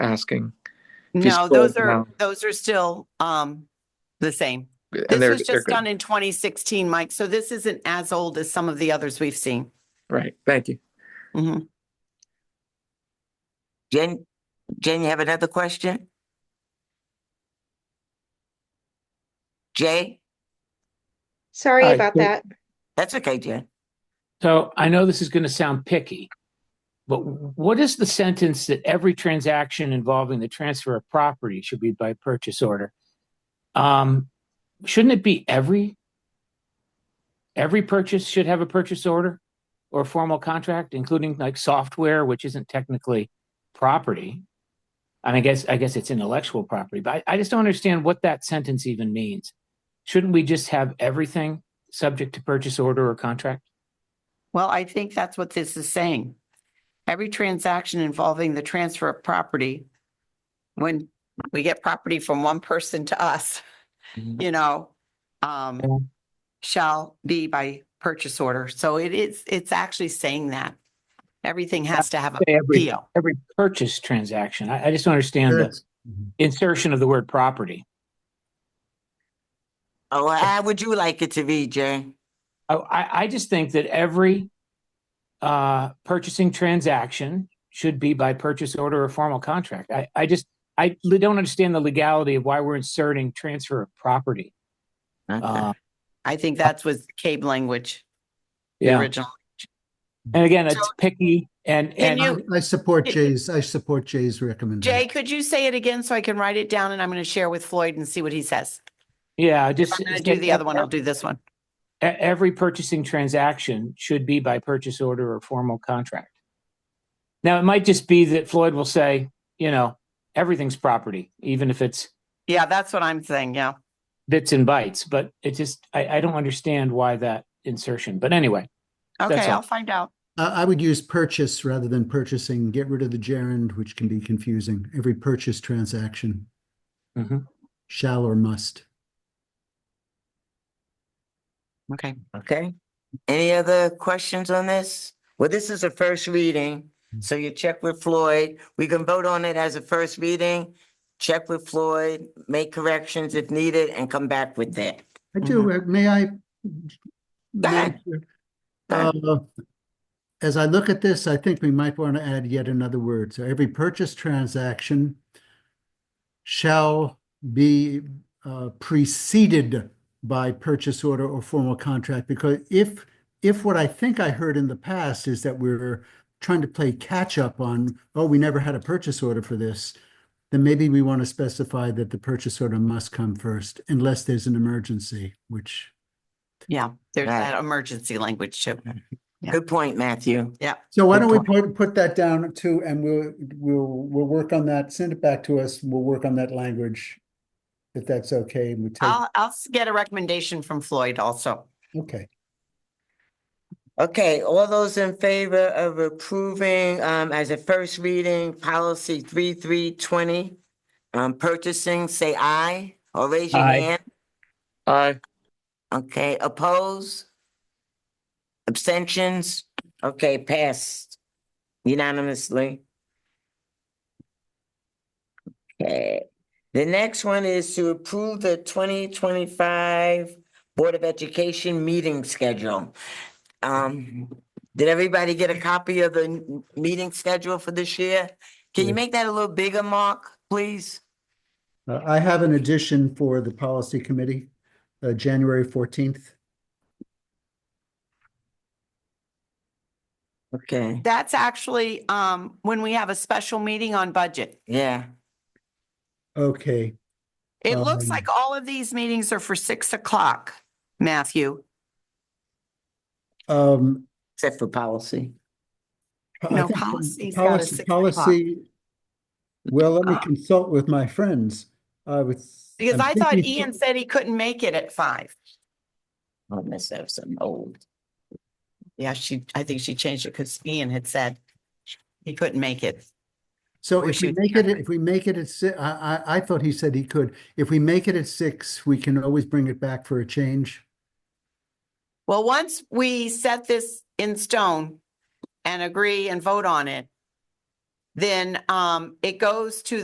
asking. If you No, scroll those are, down. those are still, um, the same. And This they're, was they're just good. done in twenty sixteen, Mike, so this isn't as old as some of the others we've seen. Right, thank you. Mhm. Jen, Jen, you have another question? Jay? Sorry Hi, about so- that. That's okay, Jen. So I know this is going to sound picky, but what is the sentence that every transaction involving the transfer of property should be by purchase order? Um, shouldn't it be every? Every purchase should have a purchase order or a formal contract, including like software, which isn't technically property. And I guess, I guess it's intellectual property, but I, I just don't understand what that sentence even means. Shouldn't we just have everything subject to purchase order or contract? Well, I think that's what this is saying. Every transaction involving the transfer of property, when we get property from one person to us, Mhm. you know, Yeah. um, shall be by purchase order. So it is, it's actually saying that. Everything has to have a say every, deal. every purchase transaction. I, I just don't understand the insertion of the word property. Oh, how would you like it to be, Jay? I, I, I just think that every uh, purchasing transaction should be by purchase order or formal contract. I, I just, I li- don't understand the legality of why we're inserting transfer of property. Okay. Uh, I think that's was cave language, the yeah. original. And again, So- it's picky and, Can and you- I- I support Jay's, I support Jay's recommendation. Jay, could you say it again so I can write it down and I'm going to share with Floyd and see what he says? yeah, just. If I'm going to do the other one, I'll do this one. E- every purchasing transaction should be by purchase order or formal contract. Now, it might just be that Floyd will say, you know, everything's property, even if it's Yeah, that's what I'm saying. Yeah. bits and bytes, but it just, I, I don't understand why that insertion, but anyway. Okay, That's all. I'll find out. Uh, I, I would use purchase rather than purchasing, get rid of the gerund, which can be confusing, every purchase transaction. Mhm. Shall or must. Okay. Okay. Any other questions on this? Well, this is a first reading, Hmm. so you check with Floyd. We can vote on it as a first reading. Check with Floyd, make corrections if needed, and come back with that. I do, uh, may I? ahead. Madam Chair? Uh, As I look at this, I think we might want to add yet another word. So every purchase transaction shall be uh, preceded by purchase order or formal contract, because if, if what I think I heard in the past is that we're trying to play catch-up on, oh, we never had a purchase order for this, then maybe we want to specify that the purchase order must come first unless there's an emergency, which Yeah, there's Right. that emergency language too. Yeah. Good point, Matthew. So why Good don't we put, put that down too, and we'll, we'll, we'll work on that, send it back to us, we'll work on that language. If that's okay, and we take, I'll, I'll s- get a recommendation from Floyd also. okay, Okay, all those in favor of approving um as a first reading, policy three three twenty. Um purchasing, say aye or raise your Aye. hand. Aye. Okay, oppose? Abstentions? Okay, passed unanimously. Okay, the next one is to approve the twenty twenty-five Board of Education meeting schedule. Um, did everybody get a copy of the n- meeting schedule for this year? Can you Yes. make that a little bigger, Mark, please? Uh, I have an addition for the policy committee, uh, January fourteenth. Okay, That's actually, um, when we have a special meeting on budget. yeah, Okay, It looks Um, like all of these meetings are for six o'clock, Matthew. um, except for policy. I No, think policy's got a policy, six o'clock. policy. Well, let me Ah. consult with my friends, I was. Because I'm I thought E thinking- Ian said he couldn't make it at five. I must have some old. Yeah, she, I think she changed it because Ian had said he couldn't make it. So Or if she we would make check it, with- if we make it at si- I, I, I thought he said he could. If we make it at six, we can always bring it back for a change. Well, once we set this in stone and agree and vote on it, then um, it goes to